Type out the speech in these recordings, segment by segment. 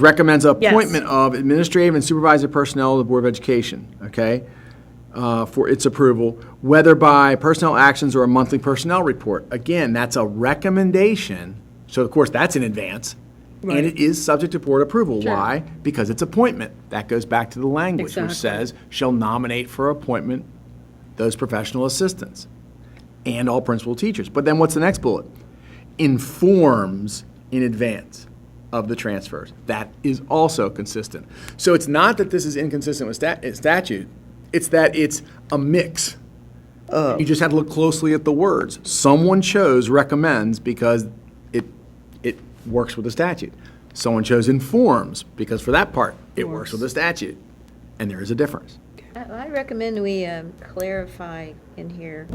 recommends Yes. appointment of administrative and supervisory personnel of the Board of Education, okay? uh, For its approval, whether by personnel actions or a monthly personnel report. Again, that's a recommendation, so of course, that's in advance. And it is subject to board approval. Sure. Why? Because it's appointment. That goes back to the language, which Exactly. says, shall nominate for appointment those professional assistants and all principal teachers. But then what's the next bullet? Informs in advance of the transfers. That is also consistent. So it's not that this is inconsistent with stat- eh, statute, it's that it's a mix. You just had to look closely at the words. Someone chose recommends because it, it works with the statute. Someone chose informs because for that part, it works with the statute. And there is a difference. I I recommend we um, clarify in here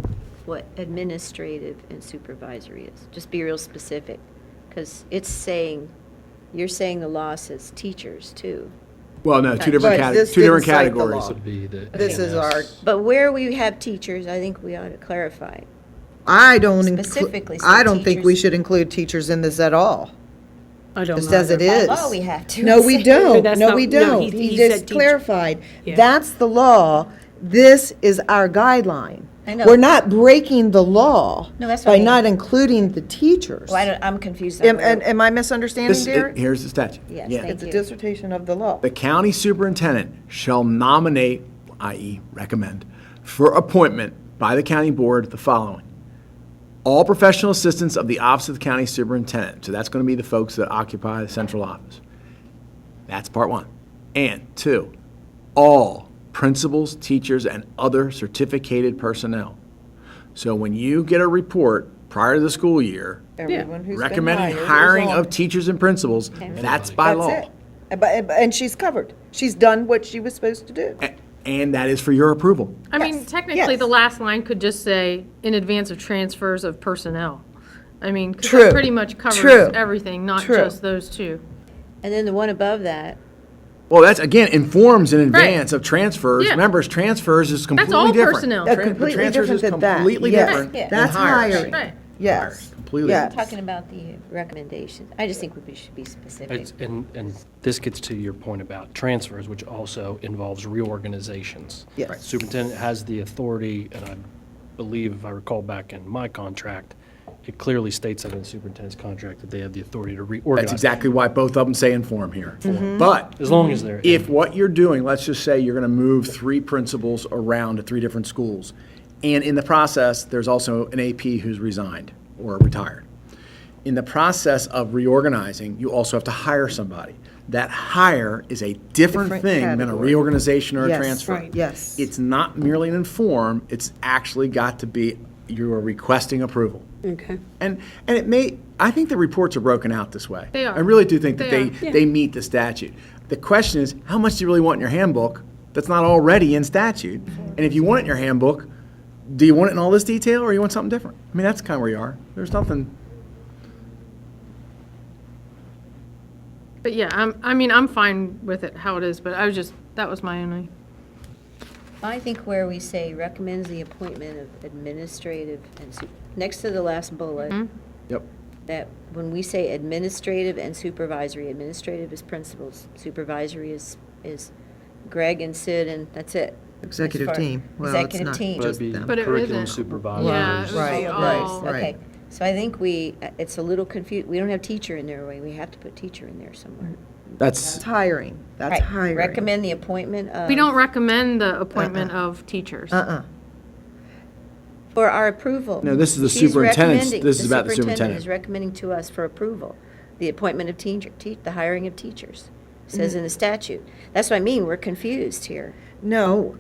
what administrative and supervisory is. Just be real specific, because it's saying, you're saying the law says teachers too. Well, no, two different, But cate- this two different didn't cite the categories. law. would be the. This is our, But where we have teachers, I think we ought to clarify. I don't, inclu- Specifically said I don't think we teachers. should include teachers in this at all, I don't know. just as it By is. law, we have to. No, we don't, That's no, not- we no, he- don't. he He said just teacher. clarified, Yeah. that's the law, this is our guideline. I know. We're not breaking the law No, that's what by I mean. not including the teachers. Well, I don't, I'm confused. on Am, where- am- am I This- misunderstanding, it- Derek? Here's the statute. Yes, Yeah. thank It's a you. dissertation of the law. The county superintendent shall nominate, i.e. recommend, for appointment by the county board the following. All professional assistants of the office of the county superintendent, so that's going to be the folks that occupy the central office. That's part one. And two, all principals, teachers, and other certificated personnel. So when you get a report prior to the school year, Everyone who's been recommending hired is hiring on of it. teachers and principals, that's by law. That's it. Uh, But, but- and she's covered, she's done what she was supposed to do. A- And that is for your approval. I mean, Yes, technically, the yes. last line could just say, in advance of transfers of personnel. I mean, 'cause True, that pretty much true, covers everything, not true. just those two. And then the one above that, Well, that's, again, informs in advance of transfers. Yeah. Members, transfers is completely all different. personnel. Uh, Tran- completely transfers is different than that. Completely Yes. different Yeah. than That's hires. hiring. Right. Yes. Completely. Yes. talking about the recommendations, I just think we should be specific. It's- And, and this gets to your point about transfers, which also involves reorganizations. Yes. Right. Superintendent has the authority, and I believe, if I recall back in my contract, it clearly states that in the superintendent's contract that they have the authority to reorganize. That's exactly why both of them say inform here. Mm-hmm. But As long as they're. if what you're doing, let's just say you're going to move three principals around to three different schools, and in the process, there's also an AP who's resigned or retired. In the process of reorganizing, you also have to hire somebody. That hire is a different Different thing than a category. reorganization or a Yes, transfer. right, yes. It's not merely an inform, it's actually got to be, you are requesting approval. Okay. And, and it may, I think the reports are broken out this way. They are. I really do think that they, They they meet the statute. The question is, how much do you really want in your handbook that's not already in statute? And if you want it in your handbook, do you want it in all this detail or you want something different? I mean, that's kind of where you are. There's nothing, But yeah, I'm, I mean, I'm fine with it how it is, but I was just, that was my only. I think where we say recommends the appointment of administrative and, su- next to the last bullet, Mm-hmm. yep. that when we say administrative and supervisory, administrative is principals, supervisory is, is Greg and Sid, and that's it. as Executive far- team. Well, it's Executive not team. But it'd be them. But it curriculum isn't. supervisors. Yeah, it Right, was right, all- right. Okay, so I think we, it's a little confused, we don't have teacher in there, we we have to put teacher in there somewhere. That's, That's hiring, that's Right, hiring. Recommend the appointment of. We don't recommend the appointment of teachers. Uh-uh. For our approval. No, this is the She's superintendent's- recommending- this is about the superintendent. is recommending to us for approval, the appointment of teacher, te- the hiring of teachers, says in the statute. That's what I mean, we're confused here. No,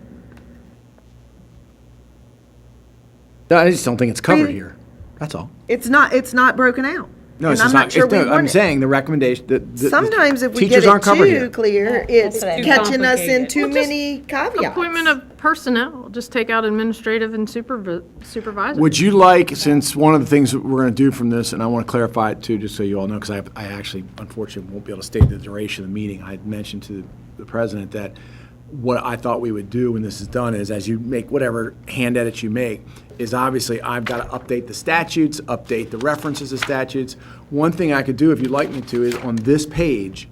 I just don't think it's covered here. That's all. it's not, it's not broken out. No, And it's I'm just not not, sure it's- we no, want I'm it. saying the recommendation, that the. Sometimes if we get teachers it aren't covered here. too clear, Yeah, that's it's what I mean. catching us in Complicated. too Well, just many caveats. Appointment of personnel, just take out administrative and supervi- supervisory. Would you like, since one of the things that we're going to do from this, and I want to clarify it too, just so you all know, because I, have- I actually unfortunately won't be able to state the duration of the meeting. I had mentioned to the president that what I thought we would do when this is done is, as you make whatever hand edits you make, is obviously I've got to update the statutes, update the references to statutes. One thing I could do, if you'd like me to, is on this page,